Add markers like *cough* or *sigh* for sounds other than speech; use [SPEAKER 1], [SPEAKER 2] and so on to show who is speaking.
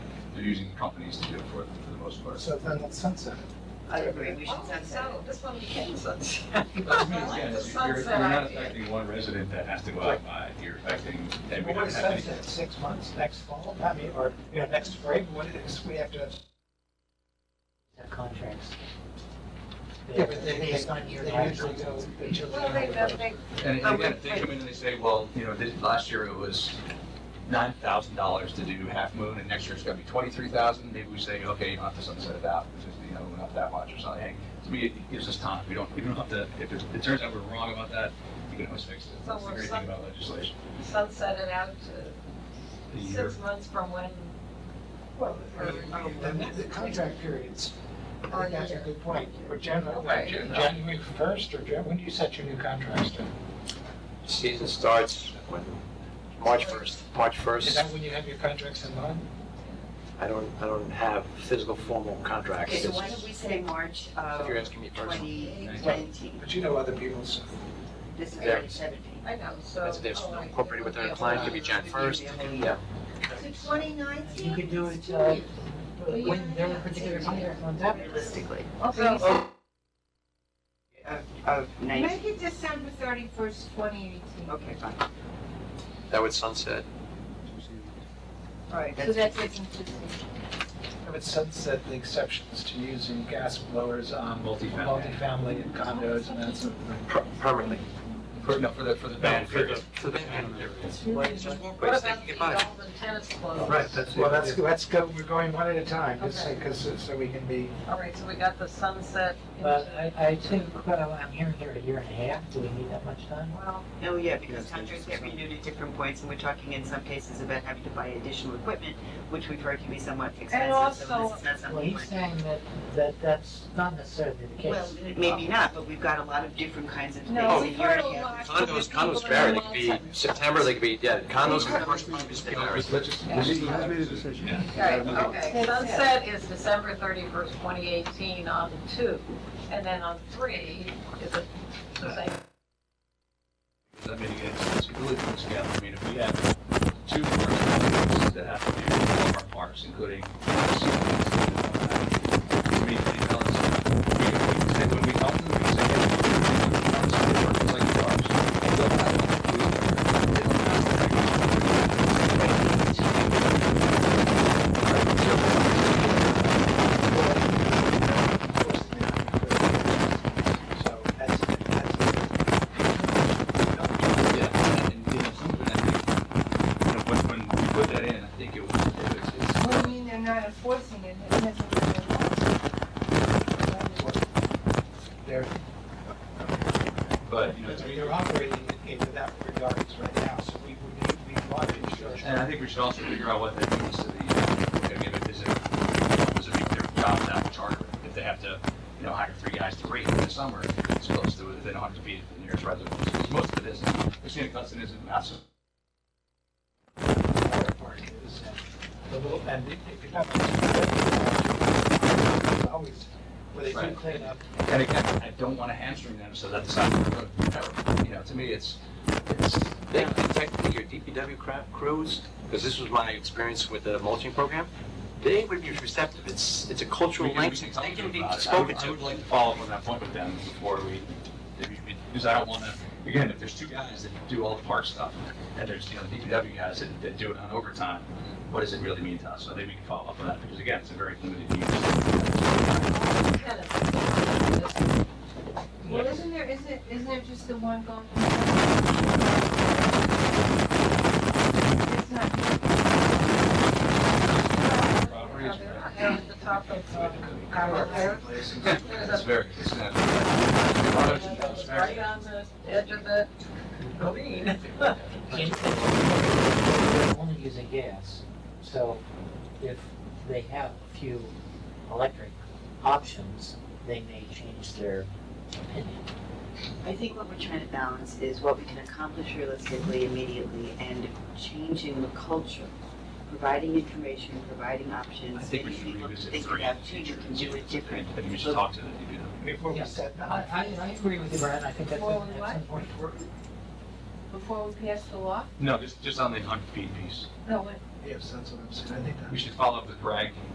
[SPEAKER 1] they're using companies to do it for, for the most part.
[SPEAKER 2] So then let's sunset it.
[SPEAKER 3] I agree, we should sunset
[SPEAKER 4] So, this one we can sunset.
[SPEAKER 1] *laughs* That's what I mean,
[SPEAKER 4] I like
[SPEAKER 1] again,
[SPEAKER 4] the
[SPEAKER 1] is You're, you're
[SPEAKER 4] sunset
[SPEAKER 1] not
[SPEAKER 4] idea.
[SPEAKER 1] affecting one resident that has to go out and buy it. You're affecting, and we don't
[SPEAKER 2] Well, what
[SPEAKER 1] have any.
[SPEAKER 2] sunset, six months, next fall, I mean, or, you know, next spring, what it is, we have to have.
[SPEAKER 3] the contracts.
[SPEAKER 2] Yeah, but they-
[SPEAKER 3] Based on your
[SPEAKER 2] They usually go, the
[SPEAKER 4] Well, they,
[SPEAKER 2] children.
[SPEAKER 4] they,
[SPEAKER 1] And
[SPEAKER 4] Oh,
[SPEAKER 1] again, if
[SPEAKER 4] wait.
[SPEAKER 1] they come in and they say, well, you know, this, last year it was nine thousand dollars to do half moon, and next year it's gonna be twenty-three thousand, maybe we say, okay, you don't have to sunset it out, it's just, you know, not that much or something. To me, it gives us time, we don't, we don't have to, if it it turns out we're wrong about that, we can always fix it.
[SPEAKER 4] So
[SPEAKER 1] That's the
[SPEAKER 4] we're
[SPEAKER 1] great
[SPEAKER 4] sun-
[SPEAKER 1] thing about legislation.
[SPEAKER 4] sunset it out
[SPEAKER 1] The
[SPEAKER 4] to
[SPEAKER 1] year-
[SPEAKER 4] six months from when,
[SPEAKER 2] Well, um, the, the contract periods, I think that's a good point, or
[SPEAKER 4] Right.
[SPEAKER 2] January, January first, or Jan, when do you set your new contracts to?
[SPEAKER 5] Season starts when, March 1st, March
[SPEAKER 2] Is
[SPEAKER 5] 1st.
[SPEAKER 2] that when you have your contracts in mind?
[SPEAKER 5] I don't, I don't have physical formal contracts.
[SPEAKER 3] Okay, so
[SPEAKER 5] It's-
[SPEAKER 3] why don't we say March
[SPEAKER 5] If
[SPEAKER 3] of
[SPEAKER 5] you're asking me personally,
[SPEAKER 3] twenty nineteen,
[SPEAKER 2] But you know other people's,
[SPEAKER 3] this is
[SPEAKER 5] Yeah.
[SPEAKER 3] twenty seventeen.
[SPEAKER 4] I know, so.
[SPEAKER 5] as they've
[SPEAKER 4] oh, I-
[SPEAKER 5] incorporated with their client, it could be Jan 1st. it could be-
[SPEAKER 6] To twenty nineteen?
[SPEAKER 3] You could do it, uh, when there were particular contract runs out realistically. Of, of nineteen,
[SPEAKER 6] Oh. Make it December thirty-first, twenty eighteen.
[SPEAKER 3] okay, fine.
[SPEAKER 5] That would sunset.
[SPEAKER 4] Right,
[SPEAKER 6] So that's it, consistent.
[SPEAKER 2] I would sunset the exceptions to using gas blowers on
[SPEAKER 1] Multifamily.
[SPEAKER 2] multifamily and condos and that sort of thing.
[SPEAKER 5] Per- Permanently.
[SPEAKER 1] For, no, for the, for the ban
[SPEAKER 5] For the,
[SPEAKER 1] period.
[SPEAKER 5] for the ban period.
[SPEAKER 3] What-
[SPEAKER 4] what
[SPEAKER 5] Ways they
[SPEAKER 4] about
[SPEAKER 5] can
[SPEAKER 4] the
[SPEAKER 5] get by.
[SPEAKER 4] Alvin tennis club?
[SPEAKER 1] Right, that's.
[SPEAKER 2] Well, let's, let's go, we're going one at a time, just
[SPEAKER 4] Okay.
[SPEAKER 2] because, so we can be,
[SPEAKER 4] All right, so we got the sunset
[SPEAKER 7] Well,
[SPEAKER 4] into,
[SPEAKER 7] I, I think, well, I'm hearing here a year and a half, do we need that much time?
[SPEAKER 4] well,
[SPEAKER 3] Oh, yeah, because contracts get renewed at different points, and we're talking in some cases about having to buy additional equipment, which we've heard can be somewhat expensive, so this
[SPEAKER 4] also-
[SPEAKER 3] is not
[SPEAKER 7] Well,
[SPEAKER 3] something
[SPEAKER 7] he's
[SPEAKER 3] we're.
[SPEAKER 7] saying that, that that's not necessarily the
[SPEAKER 3] Well,
[SPEAKER 7] case.
[SPEAKER 3] maybe not, but we've got a lot of different kinds of things.
[SPEAKER 4] no,
[SPEAKER 3] that
[SPEAKER 4] we've
[SPEAKER 3] you're
[SPEAKER 4] heard a
[SPEAKER 3] here.
[SPEAKER 4] lot. from
[SPEAKER 5] Condos,
[SPEAKER 4] the
[SPEAKER 5] condos
[SPEAKER 4] people
[SPEAKER 5] vary.
[SPEAKER 4] in
[SPEAKER 5] They could be September, they could be, yeah, condos and commercial properties. they vary.
[SPEAKER 1] Yeah.
[SPEAKER 4] Right, okay, sunset is December thirty-first, twenty eighteen on two, and then on three is it the same?
[SPEAKER 1] I mean, again, it's really from scale. I mean, if we have two parks companies that have to do all of our parks, including. Community balance. We we say when we help them, we say, hey, we do parks, we work with like parks. They don't have to do it. They don't have to do
[SPEAKER 2] so that's, that's.
[SPEAKER 1] it. Yeah, and, you know, something I think, you know, when, when we put that in, I think it was, it's, it's.
[SPEAKER 6] Well, I mean, they're not enforcing it, it hasn't been
[SPEAKER 2] They're,
[SPEAKER 1] But, you know, to me,
[SPEAKER 2] they're operating in that regards right now, so we would need, we want to ensure.
[SPEAKER 1] And I think we should also figure out what that means to the, uh, you know, if is it, does it make their job not charter? If they have to, you know, hire three guys to rate in the summer, it's close to, it. they don't have to be the nearest resident. Because Most of it is, Christina Custon isn't massive.
[SPEAKER 2] water park is, the little, and if if you're not. it's Always, where they do
[SPEAKER 1] Right.
[SPEAKER 2] clean up,
[SPEAKER 1] And again, I don't want to hamstring them, so that's not, you know, to me, it's, it's,
[SPEAKER 5] They could technically, your DPW cra- crews, because this was my experience with the mulching program, they would be receptive. It's, it's a cultural
[SPEAKER 1] We can- we
[SPEAKER 5] language.
[SPEAKER 1] can
[SPEAKER 5] They
[SPEAKER 1] talk to
[SPEAKER 5] can
[SPEAKER 1] them
[SPEAKER 5] be
[SPEAKER 1] about it. I would-
[SPEAKER 5] spoken
[SPEAKER 1] I
[SPEAKER 5] to.
[SPEAKER 1] would like to follow up on that point with them before we, because I don't want to, again, if there's two guys that do all the park stuff, and there's, you know, the DPW guys that, that do it on overtime, what does it really mean to us? So maybe we can follow up on that, because again, it's a very limited use.
[SPEAKER 4] Tennis.
[SPEAKER 6] enforced. Well, isn't there, isn't, isn't there just the one going?
[SPEAKER 4] Now, they're
[SPEAKER 6] It's not,
[SPEAKER 4] not down at the top of, uh, Howard Road.
[SPEAKER 1] It's very, it's not.
[SPEAKER 4] It's right on the edge of the green.
[SPEAKER 7] They're only using gas, so if they have a few electric options, they may change their opinion.
[SPEAKER 3] I think what we're trying to balance is what we can accomplish realistically immediately and changing the culture, providing information, providing options.
[SPEAKER 1] I think we should
[SPEAKER 3] getting people to
[SPEAKER 1] revisit
[SPEAKER 3] think
[SPEAKER 1] three.
[SPEAKER 3] about, gee, you can do it different.
[SPEAKER 1] I think we should talk to the DPW.
[SPEAKER 2] before we set
[SPEAKER 7] I,
[SPEAKER 2] that.
[SPEAKER 7] I, I agree with you, Brian, I think that's
[SPEAKER 6] Well,
[SPEAKER 7] an excellent point.
[SPEAKER 6] before we pass the law?
[SPEAKER 1] No, just, just on the hundred feet piece.
[SPEAKER 6] No, what,
[SPEAKER 8] Yes, that's what I'm saying, I think that.
[SPEAKER 2] We should follow up with Bragg